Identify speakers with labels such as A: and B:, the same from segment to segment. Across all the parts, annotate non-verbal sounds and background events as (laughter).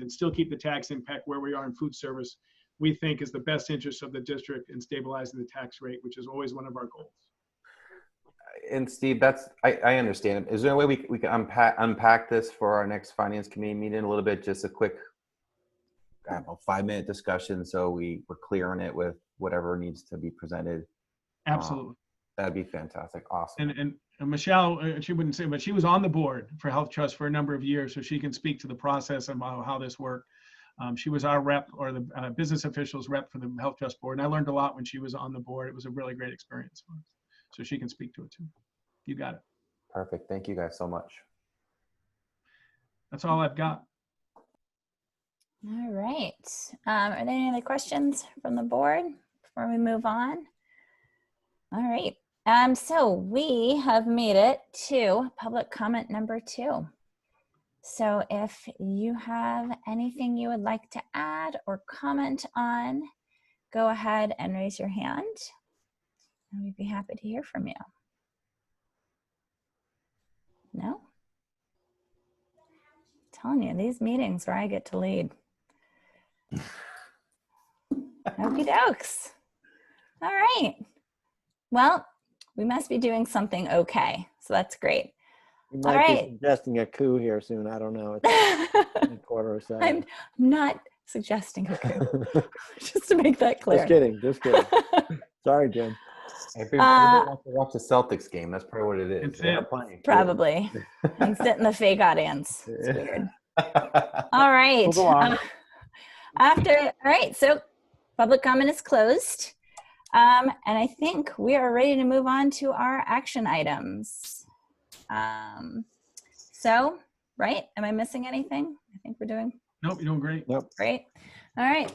A: and still keep the tax impact where we are in food service, we think is the best interest of the district in stabilizing the tax rate, which is always one of our goals.
B: And Steve, that's, I, I understand. Is there a way we, we can unpack, unpack this for our next finance committee meeting a little bit? Just a quick, I don't know, five minute discussion so we, we're clear on it with whatever needs to be presented.
A: Absolutely.
B: That'd be fantastic. Awesome.
A: And, and and Michelle, uh, she wouldn't say, but she was on the board for Health Trust for a number of years, so she can speak to the process and how, how this worked. Um, she was our rep or the uh, business officials rep for the Health Trust Board, and I learned a lot when she was on the board. It was a really great experience for us. So she can speak to it too. You got it.
B: Perfect. Thank you guys so much.
A: That's all I've got.
C: All right. Um, are there any other questions from the board before we move on? All right. Um, so we have made it to public comment number two. So if you have anything you would like to add or comment on, go ahead and raise your hand. And we'd be happy to hear from you. No? Telling you, these meetings where I get to lead. Okey dokes. All right. Well, we must be doing something okay. So that's great. (laughs)
D: You might
C: right.
D: be suggesting a coup here soon. I don't know. It's
C: (laughs) I'm
D: a quarter or seven.
C: not suggesting a coup, (laughs)
D: (laughs)
C: just to make that
D: just
C: clear.
D: kidding. Just
C: (laughs)
D: kidding. Sorry, Jim.
B: If you
C: Uh,
B: want to watch the Celtics game, that's probably what it is.
A: It's
B: They're not
A: it.
B: playing.
C: Probably. And sit in the fake
B: (laughs)
C: audience. It's weird. All right.
D: go on.
C: Um, after, all right. So public comment is closed. Um, and I think we are ready to move on to our action items. Um, so, right? Am I missing anything? I think we're doing
A: Nope, you're doing great.
C: Great. All right.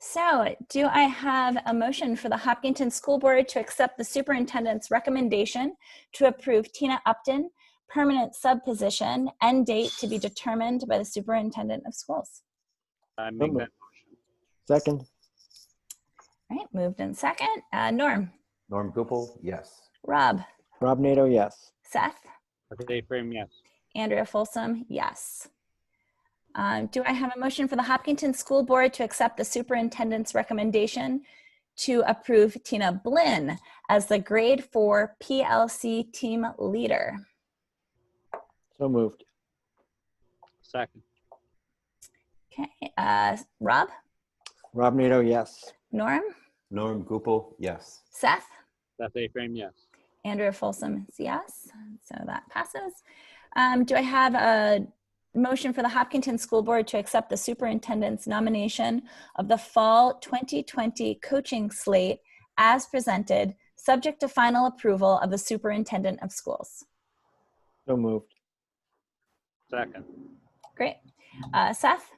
C: So do I have a motion for the Hopkinton School Board to accept the superintendent's recommendation to approve Tina Upton, permanent sub position, end date to be determined by the superintendent of schools?
E: I make
D: moved.
E: that motion.
D: Second,
C: All right, moved in second. Uh, Norm,
B: Norm Gupel, yes.
C: Rob,
D: Rob Nato, yes.
C: Seth,
E: Dave Frame, yes.
C: Andrea Folsom, yes. Um, do I have a motion for the Hopkinton School Board to accept the superintendent's recommendation to approve Tina Blinn as the grade four PLC team leader?
D: So moved.
E: Second.
C: Okay, uh, Rob,
D: Rob Nato, yes.
C: Norm,
B: Norm Gupel, yes.
C: Seth,
E: Seth A. Frame, yes.
C: Andrea Folsom is yes, so that passes. Um, do I have a motion for the Hopkinton School Board to accept the superintendent's nomination of the fall 2020 coaching slate as presented, subject to final approval of the superintendent of schools?
D: So moved.
E: Second.
C: Great. Uh, Seth,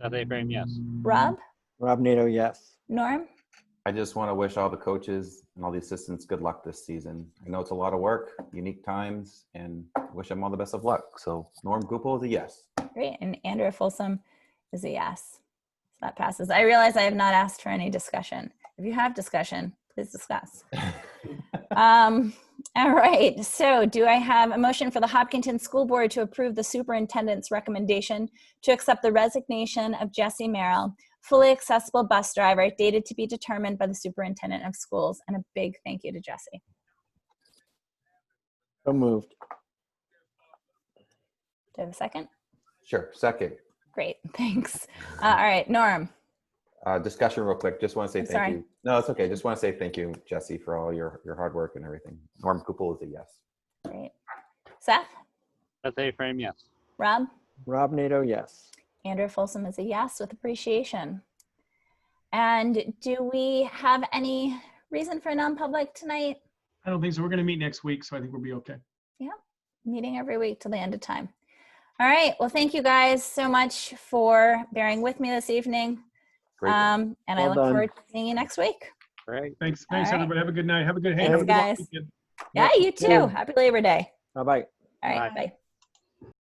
E: Seth A. Frame, yes.
C: Rob,
D: Rob Nato, yes.
C: Norm,
B: I just want to wish all the coaches and all the assistants good luck this season. I know it's a lot of work, unique times, and wish them all the best of luck. So Norm Gupel is a yes.
C: Great. And Andrea Folsom is a yes. So that passes. I realize I have not asked for any discussion. If you have discussion, please discuss. um, all right. So, do I have a motion for the Hopkinton School Board to approve the superintendent's recommendation to accept the resignation of Jesse Merrill, fully accessible bus driver, dated to be determined by the superintendent of schools? And a big thank you to Jesse.
D: So moved.
C: Do I have a second?
B: Sure. Second,
C: Great. (laughs) Thanks. Uh, all right. Norm.
B: uh, discussion real quick. Just want to say
C: I'm
B: thank
C: sorry.
B: you. No, it's okay. Just want to say thank you, Jesse, for all your, your hard work and everything. Norm Gupel is a yes.
C: Great. Seth,
E: Seth A. Frame, yes.
C: Rob.
D: Rob Nato, yes.
C: Andrew Folsom is a yes with appreciation. And do we have any reason for non-public tonight?
A: I don't think so. We're going to meet next week, so I think we'll be okay.
C: Meeting every week till the end of time. All right. Well, thank you guys so much for bearing with me this evening.
B: Great.
C: Um, and I
D: Well
C: look
D: done.
C: forward to seeing you next week.
E: All right.
A: Thanks, thanks,
C: All right.
A: everybody. Have a good night. Have a good, hey,
C: Thanks,
A: have a good long
C: guys.
A: weekend.
C: Yeah, you
D: Yeah.
C: too. Happy Labor Day.
D: Bye bye.
C: All right.
E: Bye.
C: Bye.